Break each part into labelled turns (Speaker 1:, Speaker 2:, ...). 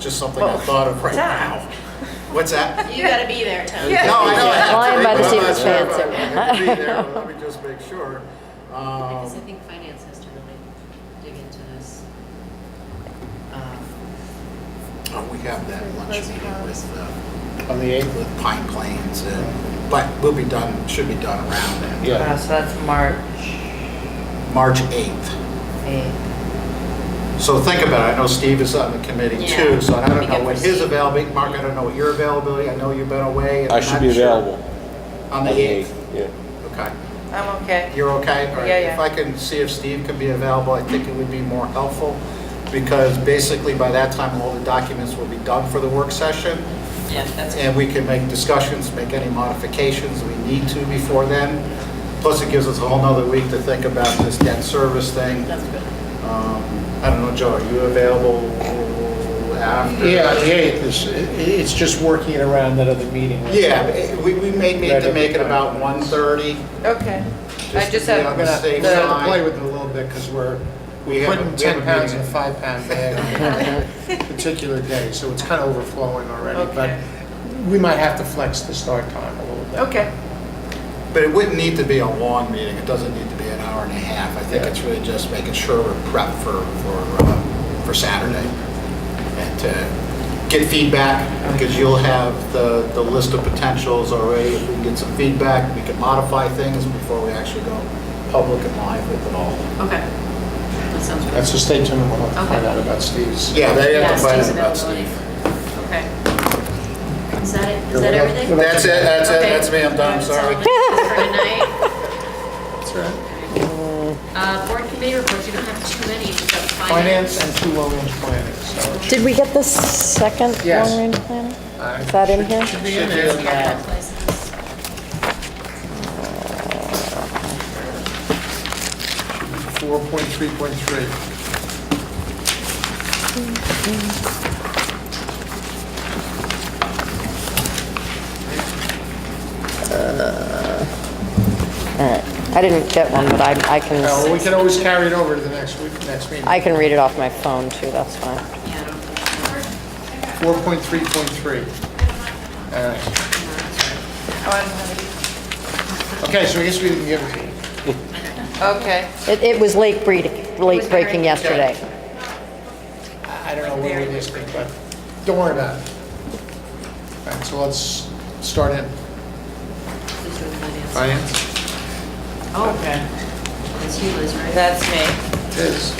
Speaker 1: just something I thought of right now. What's that?
Speaker 2: You gotta be there, Tony.
Speaker 1: No, I know. I have to
Speaker 3: Lion
Speaker 1: be,
Speaker 3: by the
Speaker 1: but I'm
Speaker 3: seat of
Speaker 1: not
Speaker 3: his
Speaker 1: sure
Speaker 3: pants,
Speaker 1: if I-
Speaker 3: sir.
Speaker 1: I could be there, but Let me just make sure. Um,
Speaker 4: Because I think finance has to really dig into this. Um,
Speaker 1: Oh, we have that lunch meeting with, uh, on the 8th with Pine Plains, uh, but we'll be done, should be done around then.
Speaker 4: uh, So that's March
Speaker 1: March 8th.
Speaker 4: 8th.
Speaker 1: So think about it, I know Steve is on the committee
Speaker 4: Yeah.
Speaker 1: too, so I
Speaker 4: Be
Speaker 1: don't
Speaker 4: good
Speaker 1: know
Speaker 4: for
Speaker 1: what his
Speaker 4: Steve.
Speaker 1: availability, Mark, I don't know what your availability, I know you've been away. and
Speaker 5: I
Speaker 1: I'm
Speaker 5: should
Speaker 1: not
Speaker 5: be
Speaker 1: sure.
Speaker 5: available.
Speaker 1: On the 8th,
Speaker 5: Yeah.
Speaker 1: okay.
Speaker 4: I'm okay.
Speaker 1: You're okay? All right.
Speaker 4: Yeah, yeah.
Speaker 1: If I can see if Steve can be available, I think it would be more helpful, because basically by that time, all the documents will be done for the work session.
Speaker 4: Yeah, that's
Speaker 1: and we can make discussions, make any modifications we need to before then. Plus, it gives us a whole nother week to think about this debt service thing.
Speaker 2: That's good.
Speaker 1: Um, I don't know, Joe, are you available after?
Speaker 6: Yeah, the 8th is, i- i- it's just working around that other meeting.
Speaker 1: Yeah, eh, we, we may need to make it about 1:30.
Speaker 7: Okay. I
Speaker 1: to
Speaker 7: just
Speaker 1: be
Speaker 7: have,
Speaker 1: on
Speaker 6: I'm
Speaker 1: the
Speaker 6: gonna,
Speaker 1: safe
Speaker 6: we have to
Speaker 1: side.
Speaker 6: play with it a little bit because we're
Speaker 1: We have a-
Speaker 6: putting
Speaker 1: we have a
Speaker 6: 10 pounds in
Speaker 1: meeting.
Speaker 6: a five-pound bag on a particular day, so it's kind of overflowing already. But
Speaker 7: Okay.
Speaker 6: we might have to flex the start time a little bit.
Speaker 7: okay,
Speaker 1: But it wouldn't need to be a long meeting, it doesn't need to be an hour and a half. I think it's really just making sure we're prepped for, for, uh, for Saturday. And to get feedback, because you'll have the, the list of potentials already. If we can get some feedback, we can modify things before we actually go public and live with it all.
Speaker 4: Okay. That sounds good.
Speaker 6: That's so stay tuned, and we'll have to find
Speaker 4: Okay.
Speaker 6: out about Steve's.
Speaker 1: Yeah, they have to find
Speaker 4: Steve's
Speaker 1: out about
Speaker 4: availability.
Speaker 1: Steve.
Speaker 4: Okay. Is that it? Is that
Speaker 6: Yeah,
Speaker 4: everything?
Speaker 6: we'll have-
Speaker 1: That's it, that's it, that's me, I'm done, I'm
Speaker 4: That's all
Speaker 1: sorry.
Speaker 4: the news For tonight.
Speaker 6: That's right.
Speaker 4: Uh, Board committee reports, you don't have too many, you've got finance.
Speaker 6: Finance and two long-range planning, so.
Speaker 3: Did we get the second
Speaker 6: Yes.
Speaker 3: long-range plan?
Speaker 6: I-
Speaker 3: Is that in here?
Speaker 6: Should be in there.
Speaker 4: Yeah, places.
Speaker 6: Four point three point three.
Speaker 3: I didn't get one, but I, I
Speaker 6: Well, Uh, Oh, we
Speaker 3: can,
Speaker 6: can always carry it over to the next week, next meeting.
Speaker 3: I can read it off my phone too, that's fine.
Speaker 4: Yeah, I don't think-
Speaker 6: 4.3.3. All right.
Speaker 7: Oh,
Speaker 6: Okay, so I guess we didn't give it.
Speaker 7: I'm- okay.
Speaker 3: It, it was late breeding, late breaking yesterday.
Speaker 6: I I don't know where we missed it, but don't worry about it. All right, so let's start in.
Speaker 4: Who's doing finance?
Speaker 6: Finance?
Speaker 7: Okay.
Speaker 4: That's you, Liz, right?
Speaker 7: That's me.
Speaker 6: Yes.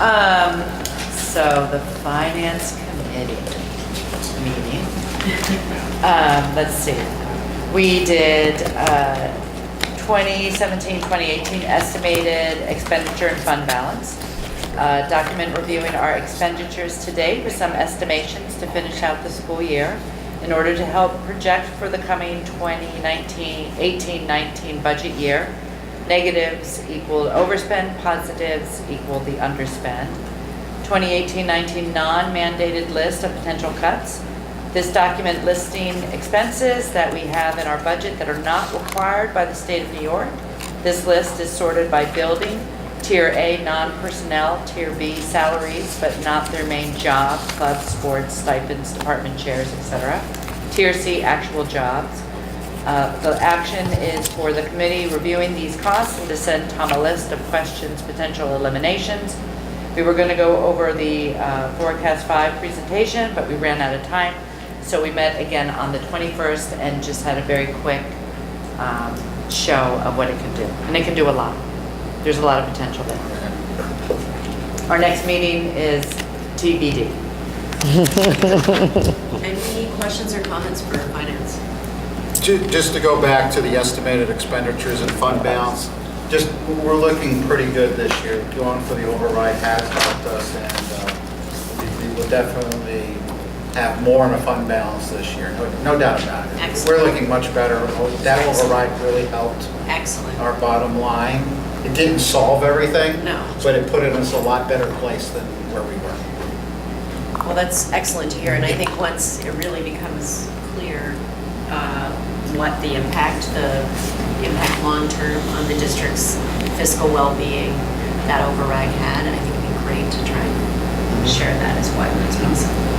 Speaker 7: Um, so the finance committee meeting. Um, let's see. We did, uh, 2017, 2018 estimated expenditure and fund balance. Uh, document reviewing our expenditures to date with some estimations to finish out the school year in order to help project for the coming 2019, 18, 19 budget year. Negatives equal overspend, positives equal the underspend. 2018-19 non-mandated list of potential cuts. This document listing expenses that we have in our budget that are not required by the state of New York. This list is sorted by building, Tier A, non-personnel, Tier B, salaries, but not their main job, club, sports, stipends, department chairs, etc. Tier C, actual jobs. Uh, The action is for the committee reviewing these costs and to send Tom a list of questions, potential eliminations. We were going to go over the uh, Forecast 5 presentation, but we ran out of time. So we met again on the 21st and just had a very quick um, show of what it can do. And it can do a lot. There's a lot of potential there. Our next meeting is TBD.
Speaker 4: Any questions or comments for finance?
Speaker 1: Ju- Just to go back to the estimated expenditures and fund balance, just, we're looking pretty good this year. Going for the override has helped us, and uh, we- we will definitely have more in a fund balance this year, no- no doubt about it.
Speaker 4: Excellent.
Speaker 1: We're looking much better. That override really helped
Speaker 4: Excellent.
Speaker 1: our bottom line. It didn't solve everything.
Speaker 4: No.
Speaker 1: But it put us in a lot better place than where we were.
Speaker 4: Well, that's excellent to hear, and I think once it really becomes clear uh, what the impact, the impact long-term on the district's fiscal well-being that override had, and I think it'd be great to try and share that as widely as possible.